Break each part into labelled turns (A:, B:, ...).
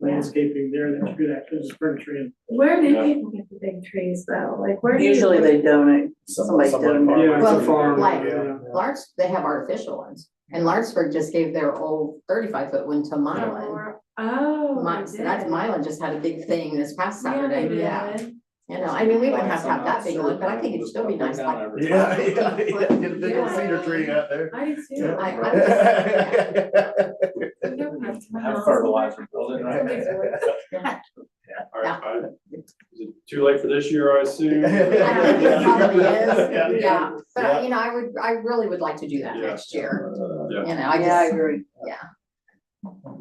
A: landscaping there, that's good, actually, there's furniture in.
B: Where do
C: Yeah.
B: people get the big trees though? Like where do you?
D: Usually they donate, somebody
C: Someone- someone-
D: donated.
A: Yeah, it's a
E: Well,
A: farm,
E: like-
A: yeah.
E: Larts, they have artificial ones, and Lartsburg just gave their old thirty-five foot one to Mylan.
B: Oh.
E: My,
B: they
E: that's
B: did.
E: Mylan just had a big thing this past
B: Yeah, they
E: Saturday, yeah,
B: did.
E: you know, I mean, we wouldn't have to have that big one, but I think it'd still be nice, like. yeah,
C: Yeah,
E: yeah, get a big old
B: cedar tree
C: out there.
B: I did too.
E: Yeah.
B: Like, I was- we don't have to
C: Have
B: have-
C: fertilizer building, right?
B: Somebody's doing it.
C: All right, I- Is it too late for this year, I assume?
E: I think it probably is,
C: Yeah.
E: yeah, but I, you know, I would, I really would like to do that
C: Yeah.
E: next year, you
C: Yeah,
E: know, I
D: Yeah, I
E: just,
D: agree.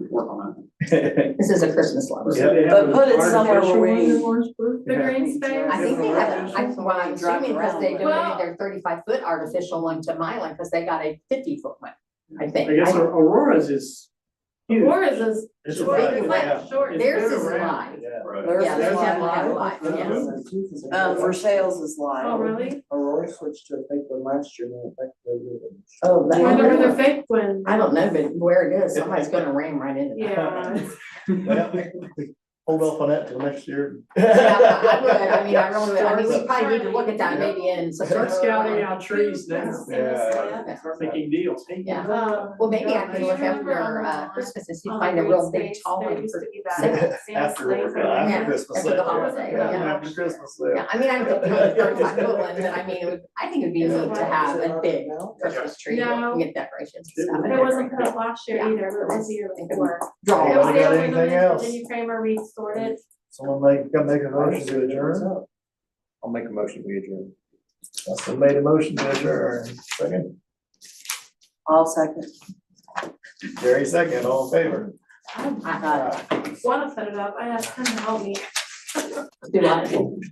C: work on
E: this is a Christmas love.
A: So they have
D: But
A: an
D: put it
A: artificial
D: somewhere where
A: one in
D: we-
A: Lawrenceburg?
B: The green space.
E: I think they have, a- I,
D: Yeah.
E: well, I'm assuming because they
B: Well-
E: donated their thirty-five foot artificial one to Mylan, because they got a fifty foot one, I think.
A: I guess
E: I-
A: Aurora's is huge.
B: Aurora's is
A: It's
B: short,
A: alive,
B: it's
A: yeah.
B: like short.
A: It's
E: Theirs
A: been
E: is
A: around,
E: alive.
C: that, right?
D: Theirs
E: Yeah,
D: is
E: there's
D: live.
E: definitely live, yes.
D: Um, for sales is live.
B: Oh, really?
F: Aurora switched to a fake one last year and it affected the.
E: Oh,
B: Or
E: that-
B: the, or the fake one.
E: I don't know, but where it is, somebody's gonna ram right into that.
B: Yeah.
F: Hold off on that till next year.
E: Yeah, I would, I mean, I really would, I mean, we
B: Start
E: probably need to look at that
F: scouting.
E: maybe in September.
A: Start scouting out trees now,
B: Yeah.
A: start making deals, hey,
E: Yeah,
B: Um,
E: uh, well, maybe I can
B: Do you
E: look
B: remember
E: after,
B: on
E: uh,
B: the-
E: Christmas, and see
B: on
E: if
B: the
E: find a
B: green
E: real big
B: Oh, space,
E: tall
B: there
E: one
B: used
E: for
B: to be that
E: sale.
B: Santa sleigh for
E: after
B: like-
F: uh, Christmas.
E: after the holiday,
B: Yeah.
E: yeah.
F: After Christmas. sale.
E: Yeah, I mean, I don't think we need a thirty-five foot one, but I mean, it would- I think it'd be neat to have a big Christmas tree
B: No.
E: and get decorations and stuff.
B: It wasn't put up last year either, but it was the year before.
E: Draw.
B: It
F: Oh,
B: was
F: I
B: the
F: got
B: other
F: anything
B: one,
F: else?
B: Jenny Kramer restored it.
F: Someone make, come make a motion to adjourn.
C: I'll make a motion, we adjourn.
F: Justin made a motion to adjourn. Second,
D: All second.
F: Jerry second, all in favor.
B: I
E: I-
B: wanna set it up, I asked him to help me.
E: Do I?